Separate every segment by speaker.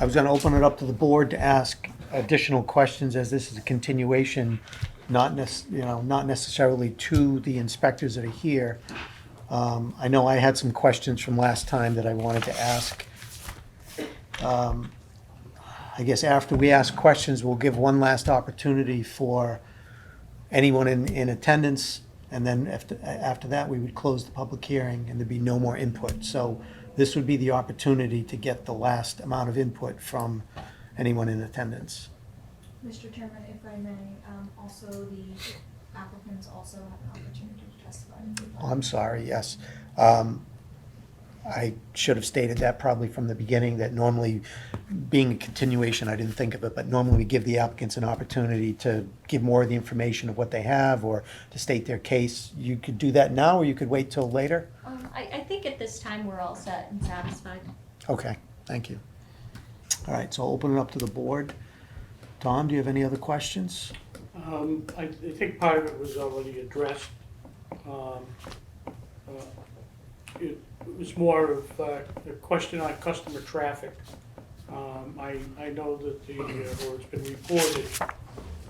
Speaker 1: I was going to open it up to the board to ask additional questions as this is a continuation, not nec, you know, not necessarily to the inspectors that are here. Um, I know I had some questions from last time that I wanted to ask. Um, I guess after we ask questions, we'll give one last opportunity for anyone in, in attendance, and then after, after that, we would close the public hearing, and there'd be no more input. So this would be the opportunity to get the last amount of input from anyone in attendance.
Speaker 2: Mr. Chairman, if I may, um, also the applicants also have an opportunity to testify.
Speaker 1: Oh, I'm sorry, yes. Um, I should have stated that probably from the beginning, that normally, being a continuation, I didn't think of it, but normally we give the applicants an opportunity to give more of the information of what they have or to state their case. You could do that now, or you could wait till later?
Speaker 3: Um, I, I think at this time, we're all set and satisfied.
Speaker 1: Okay, thank you. All right, so I'll open it up to the board. Tom, do you have any other questions?
Speaker 4: Um, I, I think part of it was already addressed. Um, uh, It was more of uh, a question on customer traffic. Um, I, I know that the, uh, or it's been reported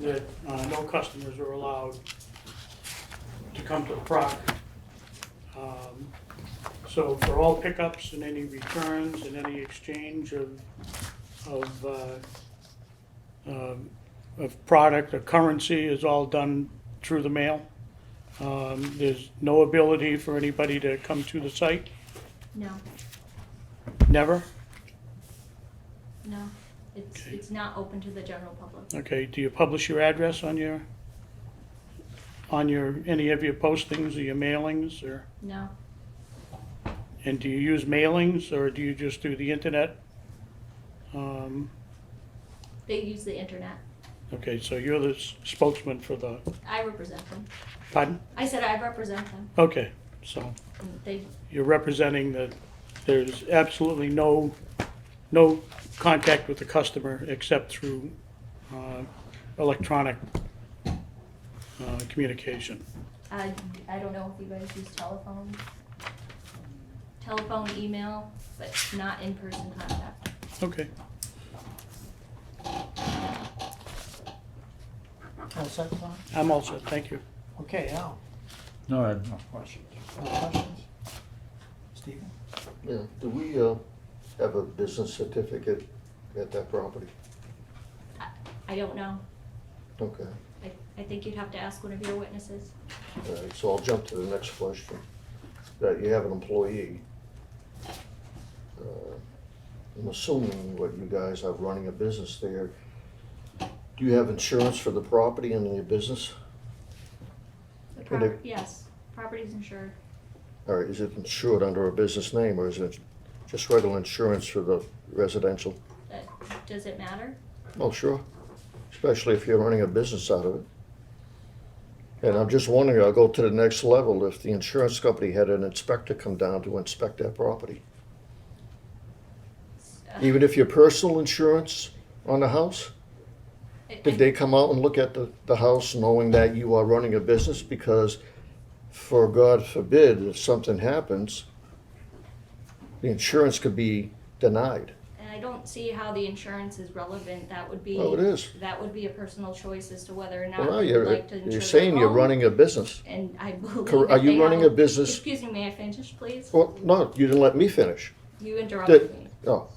Speaker 4: that uh, no customers are allowed to come to the property. Um, So for all pickups and any returns and any exchange of, of uh, um, of product or currency is all done through the mail. Um, There's no ability for anybody to come to the site,
Speaker 3: No,
Speaker 4: never?
Speaker 3: no, it's,
Speaker 4: Okay.
Speaker 3: it's not open to the general public.
Speaker 4: Okay, do you publish your address on your, on your, any of your postings or your mailings or?
Speaker 3: No,
Speaker 4: And do you use mailings or do you just do the internet? Um,
Speaker 3: they use the internet.
Speaker 4: Okay, so you're the s- spokesman for the,
Speaker 3: I represent them.
Speaker 4: pardon?
Speaker 3: I said I represent them.
Speaker 4: Okay, so.
Speaker 3: And They,
Speaker 4: you're representing that there's absolutely no, no contact with the customer except through uh, electronic uh, communication.
Speaker 3: I, I don't know if you guys use telephone, telephone, email, but not in-person contact.
Speaker 4: Okay,
Speaker 1: All set, Tom?
Speaker 4: I'm all set, thank you.
Speaker 1: Okay, Al,
Speaker 5: No, I have no questions.
Speaker 1: no questions? Stephen?
Speaker 6: Yeah, do we, uh, have a business certificate at that property?
Speaker 3: I, I don't know.
Speaker 6: Okay,
Speaker 3: I, I think you'd have to ask one of your witnesses.
Speaker 6: all right, so I'll jump to the next question. That you have an employee. Uh, I'm assuming what you guys are running a business there. Do you have insurance for the property and your business?
Speaker 3: The
Speaker 6: Can they-
Speaker 3: property, yes, property's insured.
Speaker 6: Or is it insured under a business name or is it just regular insurance for the residential?
Speaker 3: But does it matter?
Speaker 6: Oh, sure, especially if you're running a business out of it. And I'm just wondering, I'll go to the next level, if the insurance company had an inspector come down to inspect that property.
Speaker 3: Uh,
Speaker 6: Even if your personal insurance on the house,
Speaker 3: I- I-
Speaker 6: did they come out and look at the, the house knowing that you are running a business? Because for God forbid, if something happens, the insurance could be denied.
Speaker 3: And I don't see how the insurance is relevant, that would be.
Speaker 6: Oh, it is.
Speaker 3: That would be a personal choice as to whether or
Speaker 6: Well,
Speaker 3: not you'd
Speaker 6: you're,
Speaker 3: like to insure
Speaker 6: you're
Speaker 3: the
Speaker 6: saying you're
Speaker 3: home.
Speaker 6: running a business.
Speaker 3: And I believe.
Speaker 6: Cor-
Speaker 3: that
Speaker 6: are you
Speaker 3: they
Speaker 6: running
Speaker 3: have-
Speaker 6: a business-
Speaker 3: Excuse me, may I finish, please?
Speaker 6: Well, no, you didn't let me finish.
Speaker 3: You interrupted me.
Speaker 6: Oh,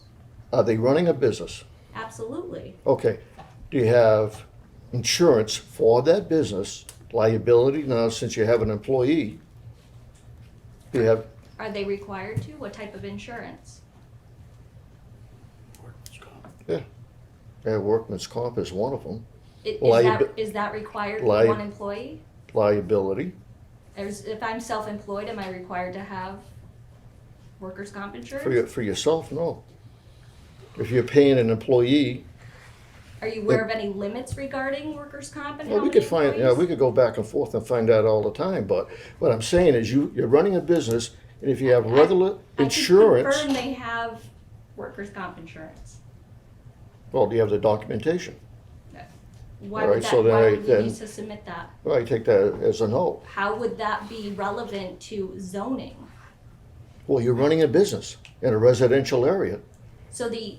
Speaker 6: are they running a business?
Speaker 3: Absolutely,
Speaker 6: Okay, do you have insurance for that business, liability now since you have an employee? Do you have,
Speaker 3: are they required to? What type of insurance?
Speaker 6: yeah, workman's comp is one of them,
Speaker 3: I- Is
Speaker 6: Liab-
Speaker 3: that, is that required for
Speaker 6: Liab-
Speaker 3: one employee?
Speaker 6: liability,
Speaker 3: There's, if I'm self-employed, am I required to have workers' comp
Speaker 6: for your,
Speaker 3: insurance?
Speaker 6: for yourself, no. If you're paying an employee,
Speaker 3: Are you aware of any limits regarding workers' comp and how
Speaker 6: uh, well, we
Speaker 3: many
Speaker 6: could find, yeah,
Speaker 3: employees?
Speaker 6: we could go back and forth and find out all the time, but what I'm saying is you, you're running a business, and if you have regular
Speaker 3: I could
Speaker 6: insurance,
Speaker 3: confirm they have workers' comp insurance.
Speaker 6: well, do you have the documentation?
Speaker 3: Why
Speaker 6: All
Speaker 3: would
Speaker 6: right,
Speaker 3: that,
Speaker 6: so then
Speaker 3: why
Speaker 6: I-
Speaker 3: would we
Speaker 6: then-
Speaker 3: need to submit that?
Speaker 6: Well, I take that as a no.
Speaker 3: How would that be relevant to zoning?
Speaker 6: Well, you're running a business in a residential area.
Speaker 3: So the,